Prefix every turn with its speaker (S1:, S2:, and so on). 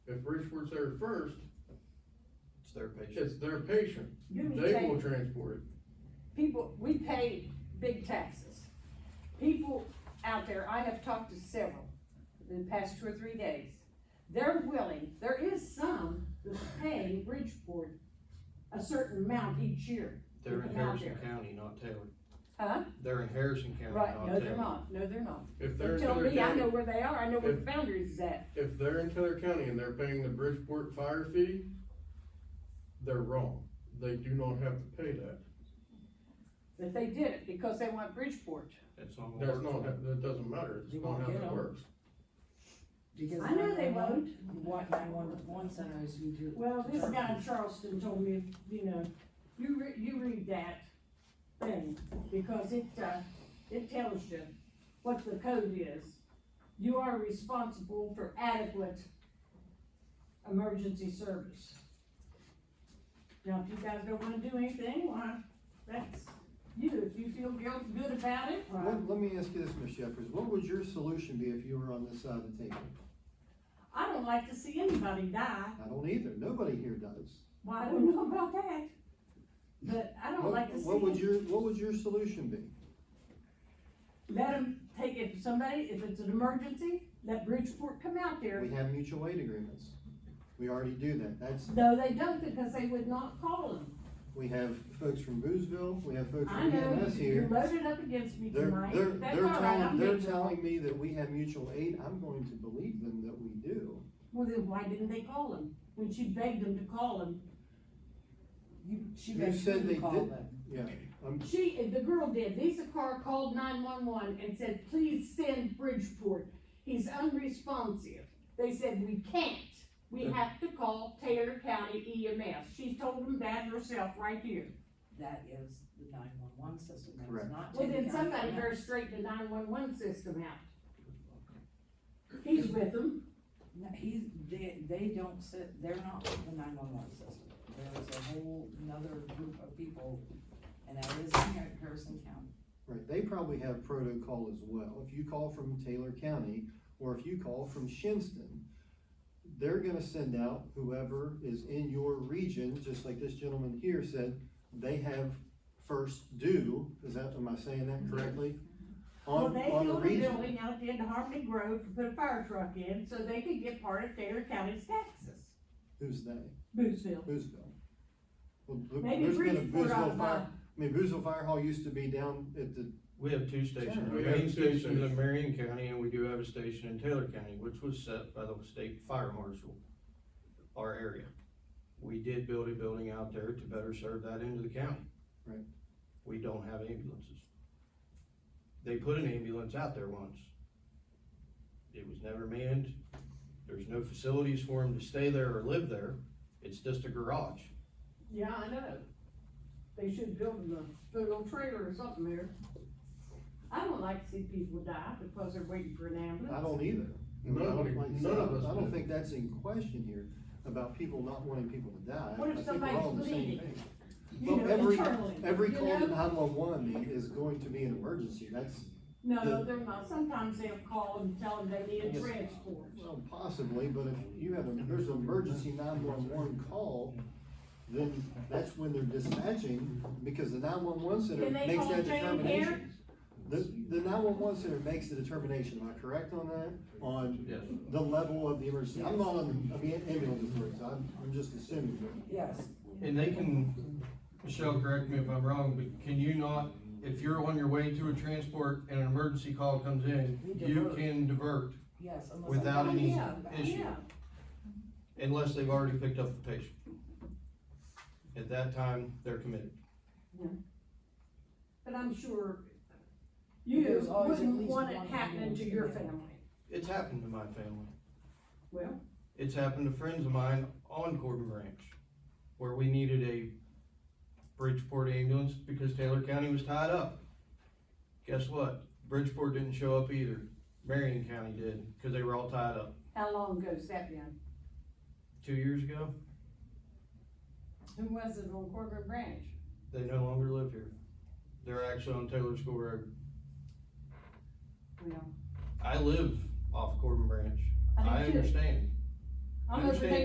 S1: If Richford's there first,
S2: It's their patient.
S1: it's their patient,
S3: You need
S1: they will
S3: change.
S1: transport it.
S3: People, we pay big taxes. People out there, I have talked to several in the past two or three days. They're willing, there is some that's paying Bridgeport a certain amount each year.
S2: They're in
S3: Get them out
S2: Harrison County, not Taylor.
S3: Huh?
S2: They're in Harrison County,
S3: Right,
S2: not
S3: no, they're
S2: Taylor.
S3: not, no, they're not.
S1: If they're
S3: They
S1: in
S3: tell
S1: Taylor
S3: me, I know
S1: County,
S3: where they are, I know where the
S1: If-
S3: Founders is at.
S1: if they're in Taylor County and they're paying the Bridgeport fire fee, they're wrong. They do not have to pay that.
S3: But they did it because they want Bridgeport.
S2: That's not. gonna
S1: That's
S2: work.
S1: not, that doesn't matter,
S4: You
S1: it's not
S4: won't
S1: how
S4: get
S1: that
S4: 'em.
S1: works.
S4: Do you get
S3: I know they
S4: 911?
S3: won't.
S4: What nine-one-one center is you do?
S5: Well, this guy in Charleston told me, you know, you re- you read that thing, because it, uh, it tells you what the code is. You are responsible for adequate emergency service. Now, if you guys don't wanna do anything, why, that's you, if you feel guilt, good about it, why?
S6: Let, let me ask you this, Ms. Jeffers, what would your solution be if you were on this side of the table?
S5: I don't like to see anybody die,
S6: I don't either, nobody here does.
S5: well, I don't know about that, but I don't
S6: What-
S5: like to see.
S6: What would your, what would your solution be?
S5: let them take, if somebody, if it's an emergency, let Bridgeport come out there.
S6: We have mutual aid agreements, we already do that, that's,
S5: No, they don't, because they would not call them.
S6: we have folks from Boozville, we have folks
S5: I
S6: from
S5: know,
S6: EMS
S5: you're
S6: here.
S5: loaded up against me
S6: They're,
S5: tonight.
S6: they're,
S5: That's
S6: they're
S5: all right,
S6: telling,
S5: I'm
S6: they're
S5: being-
S6: telling me that we have mutual aid, I'm going to believe them that we do.
S5: Well, then why didn't they call them? When she begged them to call them.
S4: You, she
S6: You
S4: made
S6: said
S4: you
S6: they
S4: call
S6: did-
S4: them.
S6: Yeah, I'm,
S5: She, the girl did. Lisa Carr called nine-one-one and said, please send Bridgeport. He's unresponsive. They said, we can't. We have to call Taylor County E EMS. She told them that herself right here.
S4: That is the nine-one-one system, that
S6: Correct.
S4: is not.
S5: Well,
S4: Taylor
S5: then
S4: County
S5: somebody
S4: Command.
S5: better straighten the nine-one-one system out. He's with them,
S4: No, he's, they, they don't sit, they're not the nine-one-one system. There is a whole another group of people, and that is in Harrison County.
S6: right, they probably have protocol as well, if you call from Taylor County, or if you call from Shinston, they're gonna send out whoever is in your region, just like this gentleman here said, they have first due, is that, am I saying that correctly?
S5: well,
S6: On,
S5: they
S6: on a
S5: built a
S6: region.
S5: building out there in Harmony Grove to put a fire truck in, so they could get part of Taylor County's taxes.
S6: Who's they?
S5: Boothville.
S6: Boozville. Well, th-
S5: Maybe
S6: there's been a
S5: Bridgeport ought to
S6: Boozville
S5: buy.
S6: fire, I mean, Boozville Fire Hall used to be down at the,
S2: We have two stations,
S6: Sure.
S2: our
S1: We have
S2: main
S1: two
S2: station is in
S1: stations.
S2: Marion County, and we do have a station in Taylor County, which was set by the state fire marshal, our area. We did build a building out there to better serve that end of the county.
S6: Right.
S2: We don't have ambulances. They put an ambulance out there once. It was never manned, there's no facilities for them to stay there or live there, it's just a garage.
S5: Yeah, I know. They should build them a little trailer or something there. I don't like to see people die because they're waiting for an ambulance.
S6: I don't either. I mean, I don't
S1: Nobody-
S6: like-
S1: none of us
S6: I don't
S1: do.
S6: think that's in question here, about people not wanting people to die.
S5: What if
S6: I think we're
S5: somebody's
S6: all on the same
S5: bleeding?
S6: page.
S5: You
S6: Well,
S5: know,
S6: every,
S5: internally,
S6: every
S5: you
S6: call to
S5: know?
S6: nine-one-one is going to be an emergency, that's,
S5: No, they're not. Sometimes they'll call and tell them they need a
S6: Yes.
S5: transport.
S6: well, possibly, but if you have, a there's an emergency nine-one-one call, then that's when they're dispatching, because the nine-one-one center
S5: Can they
S6: makes
S5: call
S6: that
S5: Jane
S6: determination.
S5: Parent?
S6: The, the nine-one-one center makes the determination, am I correct on that? On
S2: Yes.
S6: the level of the emergency, I'm not on, the- I mean, ambulance authorities, I'm, I'm just assuming.
S4: Yes,
S2: And they can, Michelle, correct me if I'm wrong, but can you not, if you're on your way to a transport and an emergency call comes in,
S4: We
S2: you
S4: divert.
S2: can divert
S4: yes. unless
S2: without
S4: somebody
S2: any
S4: comes back.
S2: issue?
S5: yeah.
S2: Unless they've already picked up the patient. At that time, they're committed.
S5: But I'm sure
S4: There's
S5: you
S4: always at
S5: wouldn't
S4: least
S5: want it
S4: one
S5: happening to
S4: ambulance
S5: your
S4: in there.
S5: family.
S2: It's happened to my family.
S5: Well.
S2: It's happened to friends of mine on Corbin Branch, where we needed a Bridgeport ambulance because Taylor County was tied up. Guess what? Bridgeport didn't show up either. Marion County did, because they were all tied up.
S5: How long ago's that been?
S2: two years ago,
S5: Who was it on Corbin Branch?
S2: they no longer live here. They're actually on Taylor School Road.
S5: Well,
S2: I live off Corbin Branch. I
S5: I do too.
S2: understand.
S5: I'm over there